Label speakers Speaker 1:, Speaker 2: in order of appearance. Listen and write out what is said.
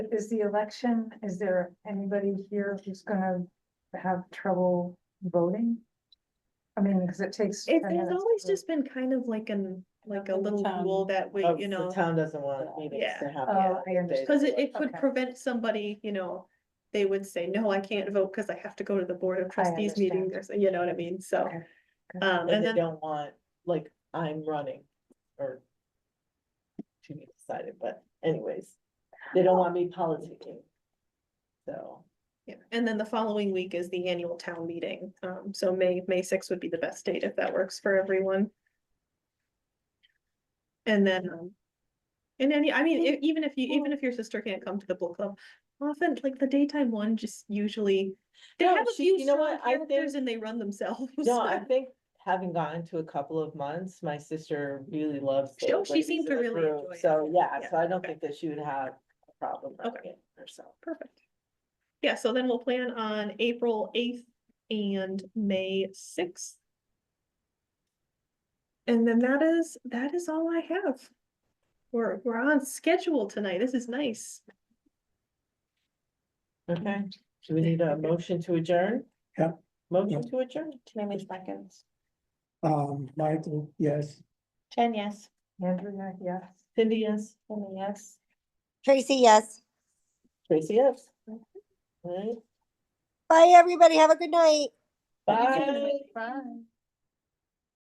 Speaker 1: Is the election, is there anybody here who's gonna have trouble voting? I mean, because it takes.
Speaker 2: It,
Speaker 1: 10
Speaker 2: it's
Speaker 1: minutes
Speaker 2: always
Speaker 1: to-
Speaker 2: just been kind of like an, like a
Speaker 3: in the
Speaker 2: little
Speaker 3: town
Speaker 2: rule that we,
Speaker 3: of
Speaker 2: you
Speaker 3: the
Speaker 2: know,
Speaker 3: Town doesn't want meetings
Speaker 2: Yeah.
Speaker 3: to happen.
Speaker 1: Oh, I
Speaker 3: on
Speaker 1: understand.
Speaker 3: days
Speaker 2: cause
Speaker 3: of
Speaker 2: it, it
Speaker 3: work.
Speaker 2: could
Speaker 1: Okay.
Speaker 2: prevent somebody, you know. They would say, no, I can't vote because I have to go to the board of trustees meeting,
Speaker 1: understand.
Speaker 2: or so- you know what I mean, so.
Speaker 1: Okay.
Speaker 2: Um,
Speaker 3: And
Speaker 2: and
Speaker 3: they
Speaker 2: then,
Speaker 3: don't want, like, I'm running or to be decided, but anyways, they don't want me politicking. So,
Speaker 2: yeah, and then the following week is the annual town meeting, um, so May, May sixth would be the best date if that works for everyone. And then, um. And any, I mean, e- even if you, even if your sister can't come to the book club, often like the daytime one just usually. Oh, They
Speaker 3: No,
Speaker 2: have a
Speaker 3: she-
Speaker 2: few
Speaker 3: you know
Speaker 2: strong
Speaker 3: what, I
Speaker 2: characters and they run themselves.
Speaker 3: no, I think having gotten to a couple of months, my sister really loves.
Speaker 2: She-
Speaker 3: the
Speaker 2: she
Speaker 3: ladies
Speaker 2: seemed
Speaker 3: in
Speaker 2: to
Speaker 3: the
Speaker 2: really
Speaker 3: group,
Speaker 2: enjoy it.
Speaker 3: So, yeah,
Speaker 2: Yeah,
Speaker 3: so I don't
Speaker 2: okay.
Speaker 3: think that she would have a problem running
Speaker 2: Okay.
Speaker 3: it herself.
Speaker 2: Perfect. Yeah, so then we'll plan on April eighth and May sixth. And then that is, that is all I have. We're, we're on schedule tonight. This is nice. Mm-hmm.
Speaker 3: Okay, do we need a motion to adjourn?
Speaker 4: Yeah.
Speaker 3: Motion to adjourn?
Speaker 5: Tammy seconds.
Speaker 4: Um, Michael, yes.
Speaker 5: Jen, yes.
Speaker 1: Andrea, yes.
Speaker 3: Cindy, yes?
Speaker 5: Tammy, yes.
Speaker 6: Tracy, yes.
Speaker 3: Tracy, yes? All right.
Speaker 6: Bye, everybody. Have a good night.
Speaker 3: Bye.
Speaker 1: Bye.